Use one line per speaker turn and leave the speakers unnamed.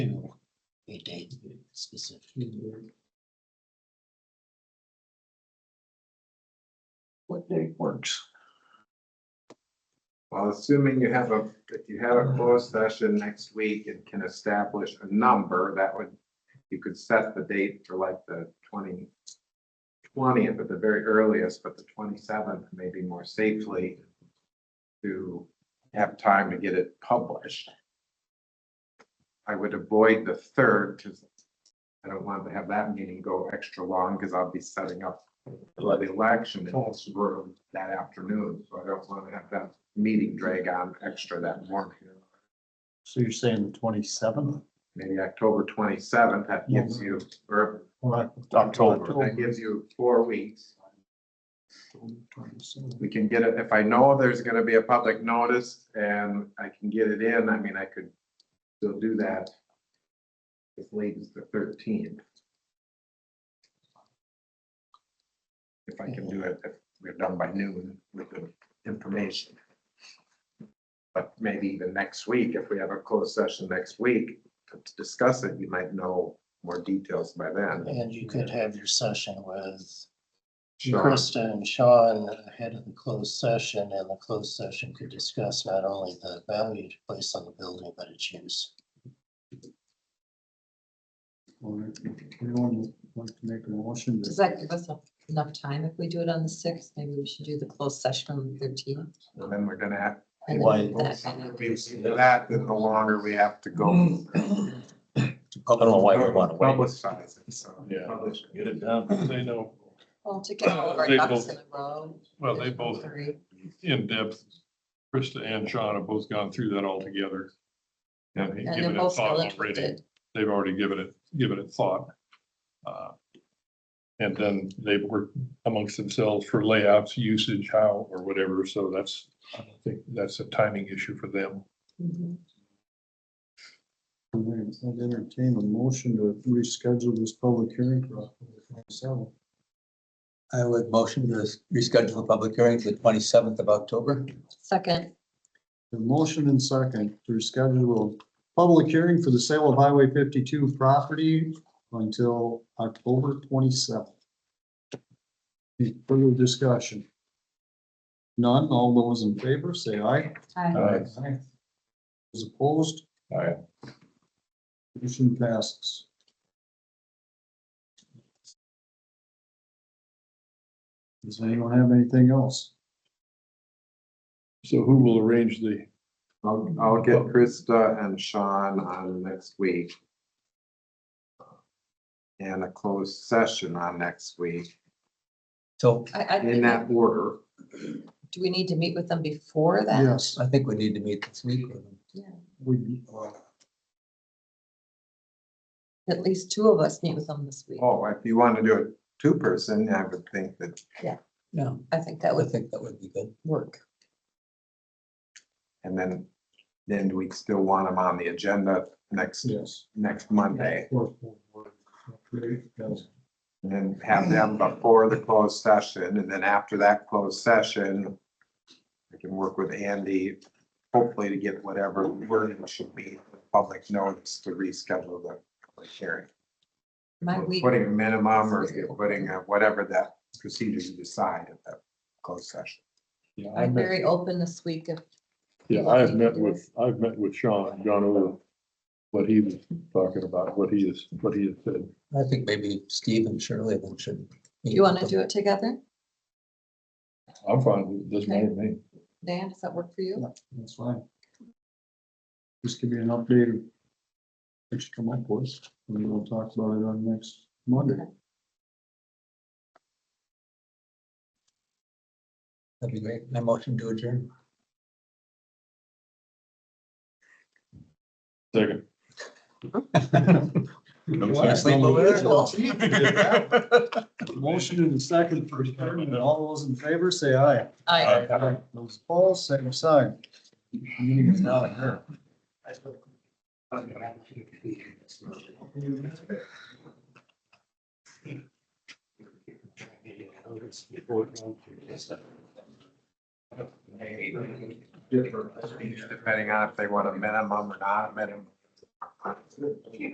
a date specific.
What date works?
Well, assuming you have a, if you have a closed session next week and can establish a number, that would, you could set the date for like the twenty, twentieth at the very earliest, but the twenty-seventh maybe more safely to have time to get it published. I would avoid the third because I don't want to have that meeting go extra long because I'll be setting up for the election in this room that afternoon, so I don't want to have that meeting drag on extra that morning.
So you're saying the twenty-seventh?
Maybe October twenty-seventh, that gives you, or that gives you four weeks. We can get it, if I know there's gonna be a public notice and I can get it in, I mean, I could still do that as late as the thirteenth. If I can do it, if we're done by noon with the information. But maybe even next week, if we have a closed session next week to discuss it, you might know more details by then.
And you could have your session with
Sure.
Krista and Sean ahead of the closed session, and the closed session could discuss not only the value to place on the building, but its use.
Anyone want to make a motion?
Does that give us enough time if we do it on the sixth? Maybe we should do the closed session on the thirteenth.
And then we're gonna have
And
Why?
then that kind of- Mm.
We've seen That, then the longer we have to go.
I don't know why we want to wait.
Publicize it, so.
Yeah.
publish it.
Get it done. They know,
Well, to get all of our
They
ducks
both-
in a row.
well, they both
Three.
in depth, Krista and Sean have both gone through that all together. And
And they're
given it
both
thought
still
already.
interested.
They've already given it, given it thought. Uh, And then they've worked amongst themselves for layouts, usage, how, or whatever. So that's, I don't think that's a timing issue for them.
Mhm.
I'd entertain a motion to reschedule this public hearing for October twenty-seventh.
I would motion to reschedule the public hearing to the twenty-seventh of October.
Second,
The motion and second to schedule a public hearing for the sale of Highway fifty-two property until October twenty-seventh. Any further discussion? None, all those in favor, say aye.
Aye.
Aye. Those opposed? Aye. Motion passes. Does anyone have anything else? So who will arrange the?
I'll, I'll get Krista and Sean on next week. And a closed session on next week,
So
I, I,
in
think-
that order.
do we need to meet with them before that?
Yes.
I think we need to meet this week.
We,
At least two of us meet with them this week.
Oh, if you want to do it two-person, I would think that
Yeah.
I think that
I
would
would think that would be good.
work.
And then, then we'd still want them on the agenda next,
yes.
next Monday.
Well,
And then have them before the closed session, and then after that closed session, I can work with Andy, hopefully to get whatever wording should be public notice to reschedule the public hearing.
My week,
Putting a minimum or putting a- whatever that procedure you decide at that closed session.
Yeah, I
I'm
met,
very open this week if
yeah, I have met with, I've met with Sean, and gone over what he was talking about, what he is, what he has said.
I think maybe Steve and Shirley then should. meet
you want to
with
do it together.
I'm fine, with it doesn't matter to me.
Dan, does that work for you?
That's fine. Just give me an update. What you come up with, and we'll talk about it on next Monday.
them. That'd be great. I motion to adjourn.
Second.
Wanna sleep over there?
Motion in the second for adjournment, all those in favor, say aye.
I,
Those opposed, same sign. Meeting is now adjourned.
Depending on if they want a minimum or not a minimum.